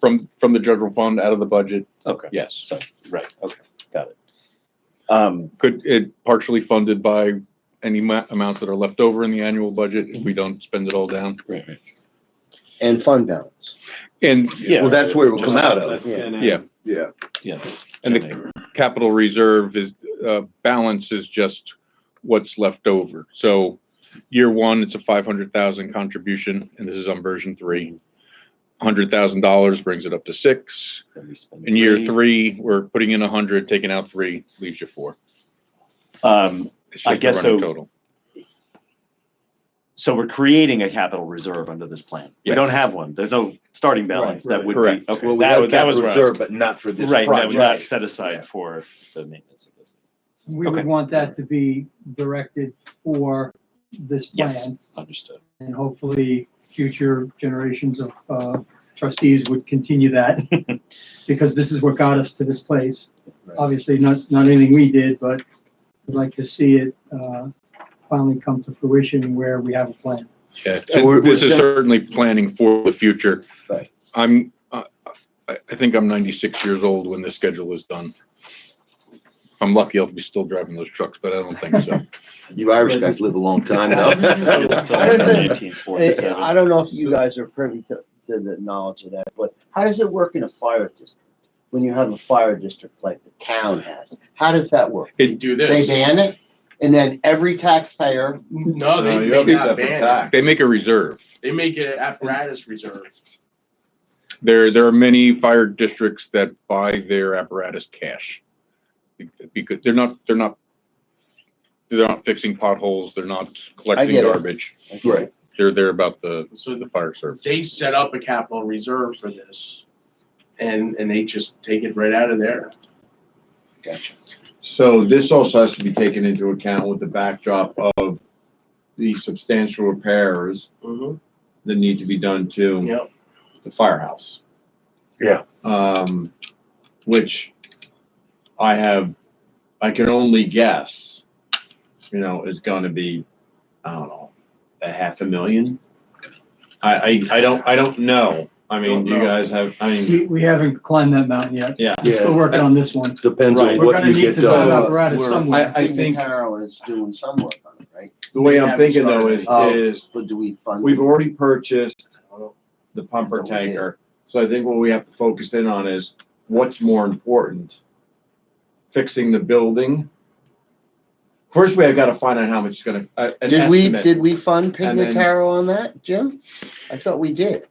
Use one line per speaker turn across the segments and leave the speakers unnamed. From, from the general fund out of the budget,
Okay,
yes.
right, okay, got it. Um,
Could, it partially funded by any ma- amounts that are left over in the annual budget if we don't spend it all down.
right, right.
and fund balance.
And,
Yeah.
Well, that's where it will come out
That's
of.
in it.
yeah,
Yeah.
yeah.
and the capital reserve is, uh, balance is just what's left over. So year one, it's a five hundred thousand contribution, and this is on version three. Hundred thousand dollars brings it up to six. In year three, we're putting in a hundred, taking out three, leaves you four.
Um,
It's
I
just the running
guess so.
Total.
so we're creating a capital reserve under this plan. We
Yes.
don't have one. There's no starting balance that would
Correct.
be, okay.
Well, we
that-
have
that was
capital
where I was-
reserve, but not for this
Right, that was not
project.
set aside for the maintenance of this.
We
Okay.
would want that to be directed for this
Yes.
plan.
Understood.
And hopefully, future generations of uh, trustees would continue that, because this is what got us to this place.
Right.
Obviously, not, not anything we did, but we'd like to see it uh, finally come to fruition where we have a plan.
Yeah,
So we're-
this
we're
is
gen-
certainly planning for the future.
Right.
I'm, uh, I, I think I'm ninety-six years old when this schedule is done. If I'm lucky, I'll be still driving those trucks, but I don't think so.
You Irish guys live a long time now.
It's still
How does it-
1947.
I don't know if you guys are privy to, to the knowledge of that, but how does it work in a fire district? When you have a fire district like the town has, how does that work?
It-
do
They
this.
ban it and then every taxpayer,
No,
No,
they
you
make
have to
not
separate
ban
tax.
it.
They make a reserve.
They make it apparatus reserve.
There, there are many fire districts that buy their apparatus cash. Because they're not, they're not, they're not fixing potholes, they're not collecting
get it.
garbage.
Right.
They're there about the,
So
the
the-
fire service.
they set up a capital reserve for this. And, and they just take it right out of there.
gotcha,
So this also has to be taken into account with the backdrop of the substantial repairs
Mm-hmm.
that need to be done to
Yep.
the firehouse.
Yeah.
Um, which I have, I can only guess, you know, is gonna be, I don't know, a half a million? I, I, I don't, I don't know. I mean,
Don't
you
know.
guys have, I mean,
We, we haven't climbed that mountain yet. We're
Yeah,
working on this one.
depends
Right.
on
We're
what
gonna
you
need
get
to set
done.
up apparatus
We're-
somewhere.
I think-
Carol is doing some work on it, right?
the way
They
I'm
haven't
thinking though is,
Uh,
started.
is
But do we fund?
We've already purchased the pumper
That's what we did.
tanker, so I think what we have to focus in on is what's more important? Fixing the building. First, we have got to find out how much it's gonna, uh, an
Did we,
estimate.
did we fund
And then-
Pignataro on that, Jim? I thought we did.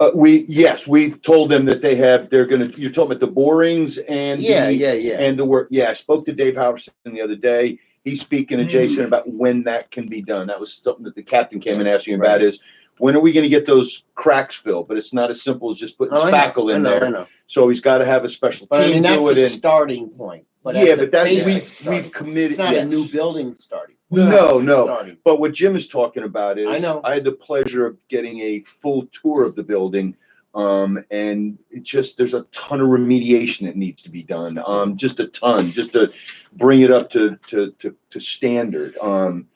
Uh, we, yes, we told them that they have, they're gonna, you're talking about the borings and the-
Yeah, yeah, yeah.
And the work, yeah, I spoke to Dave Howerson the other day. He's speaking to Jason about when that can be done. That was something that the captain came and asked me about is, when are we gonna get those cracks filled? But it's not as simple as just putting
Oh, I know,
spackle
I
in
know, I
there.
know.
So he's gotta have a special
But I
team
mean,
do
that's
it
a
and.
starting point, but
Yeah,
that's a
but that,
basic
we've,
starting
we've
point.
committed.
It's not a
yes.
new building starting.
No,
It's a
no.
starting.
But what Jim is talking about is
I know.
I had the pleasure of getting a full tour of the building. Um, and it just there's a ton of remediation that needs to be done. Um, just a ton, just to bring it up to to to, to standard. Um,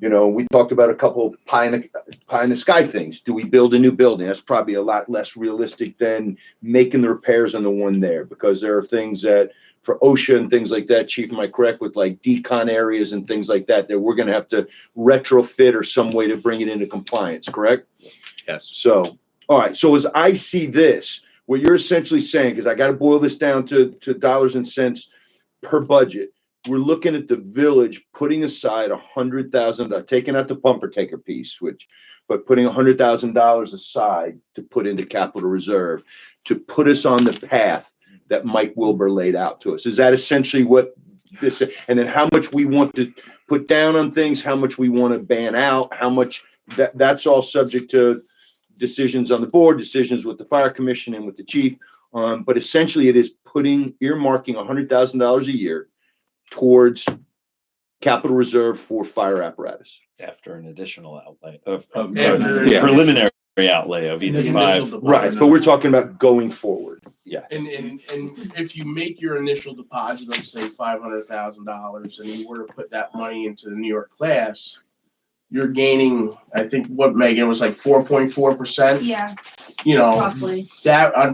you know, we talked about a couple pie in, the, pie in the sky things. Do we build a new building? That's probably a lot less realistic than making the repairs on the one there because there are things that for OSHA and things like that, Chief, am I correct with like decon areas and things like that, that we're gonna have to retrofit or some way to bring it into compliance, correct?
Yes.
So, all right, so as I see this, what you're essentially saying, because I gotta boil this down to, to dollars and cents per budget. We're looking at the village putting aside a hundred thousand, uh, taking out the bumper taker piece, which, but putting a hundred thousand dollars aside to put into capital reserve to put us on the path that Mike Wilbur laid out to us. Is that essentially what this, and then how much we want to put down on things, how much we want to ban out, how much, that, that's all subject to decisions on the board, decisions with the fire commission and with the chief. Um, but essentially it is putting, earmarking a hundred thousand dollars a year towards capital reserve for fire apparatus.
After an additional outlay of, of
After-
a preliminary outlay of either
The
five.
initial
Right, but we're talking about going forward.
And, and, and if you make your initial deposit of say five hundred thousand dollars and you were to put that money into the New York class, you're gaining, I think what Megan was like four point four percent,
Yeah,
you know,
roughly.
that on